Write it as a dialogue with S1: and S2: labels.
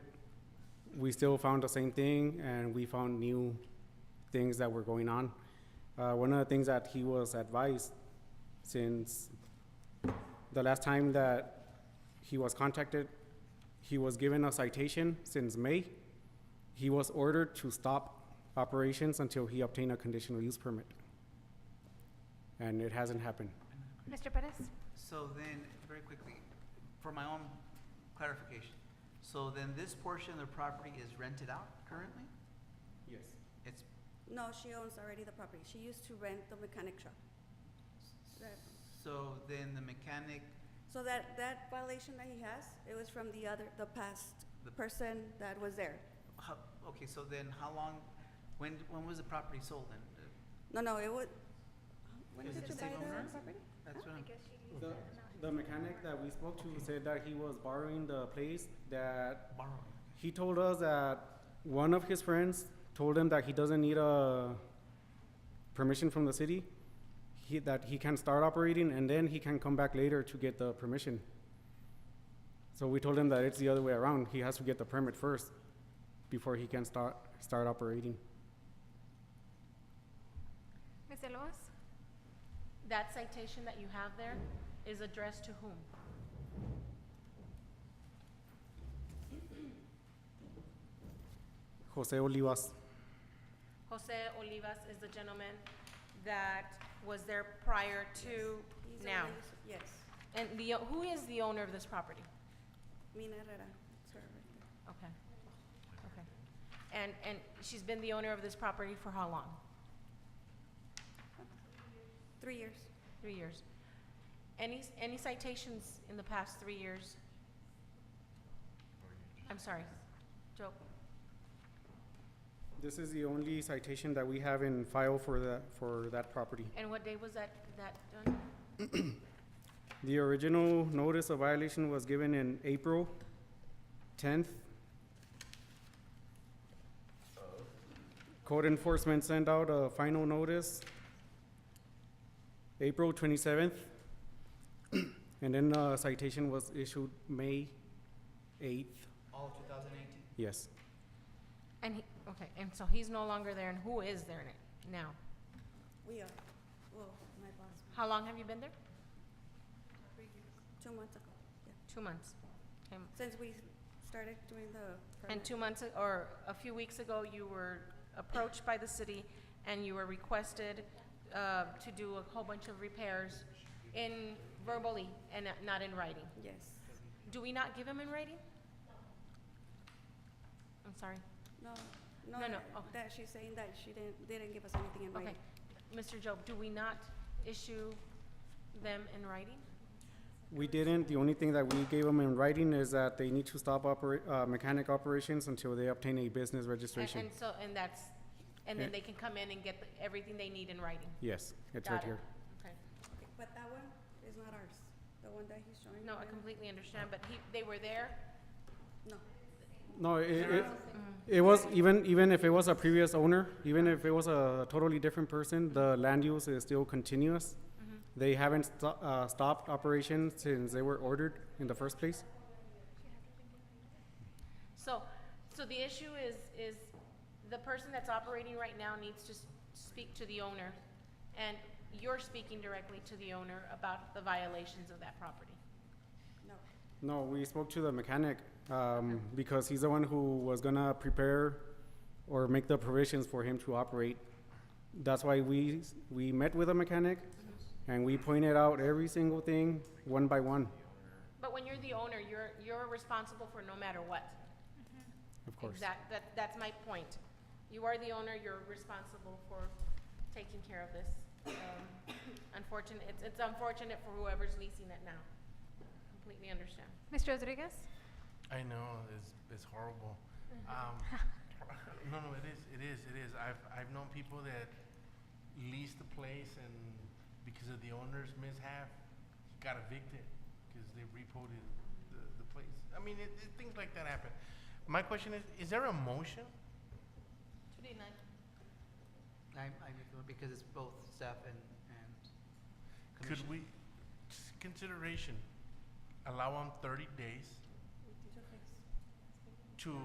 S1: we still found the same thing and we found new things that were going on. Uh, one of the things that he was advised since the last time that he was contacted, he was given a citation since May. He was ordered to stop operations until he obtained a conditional use permit. And it hasn't happened.
S2: Mr. Perez?
S3: So then, very quickly, for my own clarification, so then this portion of the property is rented out currently?
S1: Yes.
S3: It's,
S4: No, she owns already the property. She used to rent the mechanic shop. Right.
S3: so then the mechanic,
S4: So that, that violation that he has, it was from the other, the past
S3: The-
S4: person that was there.
S3: how, okay, so then how long, when, when was the property sold then? Uh,
S4: No, no, it would, when
S3: Is
S4: did
S3: it
S4: you
S3: the
S4: buy
S3: same owner?
S4: the property?
S3: That's what I'm,
S1: The, the mechanic that we spoke to said that he was borrowing the place that
S3: borrowing.
S1: He told us that one of his friends told him that he doesn't need a permission from the city. He, that he can start operating and then he can come back later to get the permission. So we told him that it's the other way around. He has to get the permit first before he can start start operating.
S2: Mr. Lewis?
S5: That citation that you have there is addressed to whom?
S1: Jose Olivas.
S5: Jose Olivas is the gentleman that was there prior
S4: He's
S5: to
S4: the
S5: now.
S4: one that used- Yes,
S5: And the, o- who is the owner of this property?
S4: Mina Herrera, it's her right there.
S5: Okay, okay. And, and she's been the owner of this property for how long?
S4: Three years.
S5: Three years. Any, s- any citations in the past three years? I'm sorry, Joe,
S1: This is the only citation that we have in file for that for that property.
S5: and what day was that, that done?
S1: The original notice of violation was given in April tenth. Code enforcement sent out a final notice April twenty-seventh. And then a citation was issued May eighth,
S3: All two thousand eighteen?
S1: yes.
S5: And he, okay, and so he's no longer there, and who is there n- now?
S4: We are, well, my boss,
S5: How long have you been there?
S4: two months ago, yeah.
S5: Two months. Okay.
S4: Since we started doing the
S5: And
S4: permit.
S5: two months, a- or a few weeks ago, you were approached by the city and you were requested uh, to do a whole bunch of repairs in verbally and not- not in writing.
S4: Yes.
S5: Do we not give them in writing? I'm sorry.
S4: No,
S5: No,
S4: no,
S5: no,
S4: that-
S5: oh.
S4: that she's saying that she didn't, they didn't give us anything in
S5: Okay.
S4: writing.
S5: Mr. Job, do we not issue them in writing?
S1: We didn't, the only thing that we gave them in writing is that they need to stop operate, uh, mechanic operations until they obtain a business
S5: And
S1: registration.
S5: and so, and that's, and
S1: Yeah.
S5: then they can come in and get the- everything they need in writing?
S1: Yes, it's
S5: Got
S1: right
S5: it.
S1: here.
S5: Okay.
S4: Okay, But that one is not ours, the one that he's showing.
S5: No, I
S4: right now.
S5: completely understand, but he, they were there?
S4: No,
S1: No, it, it, it was, even, even if it was a previous owner, even if it was a totally different person, the land use is still continuous. They haven't sto- uh, stopped operations since they were ordered in the first place.
S5: So, so the issue is, is the person that's operating right now needs to s- speak to the owner, and you're speaking directly to the owner about the violations of that property.
S4: no.
S1: No, we spoke to the mechanic, um, because he's the one who was gonna prepare or make the provisions for him to operate. That's why we, s- we met with a mechanic and we pointed out every single thing, one by one,
S5: But when you're the owner, you're, you're responsible for no matter what.
S1: of course.
S5: Exact, that, that's my point. You are the owner, you're responsible for taking care of this. Um, Unfortunate, it's, it's unfortunate for whoever's leasing it now. Completely understand.
S2: Mr. Rodriguez?
S6: I know it's it's horrible. Um, no, no, it is, it is, it is. I've I've known people that leased the place and because of the owner's mishap, got evicted because they repoed it- the the place. I mean, it, it, things like that happen. My question is: Is there a motion?
S5: To deny.
S3: I, I, because it's both staff and, and commission.
S6: Could we, s- consideration, allow them thirty days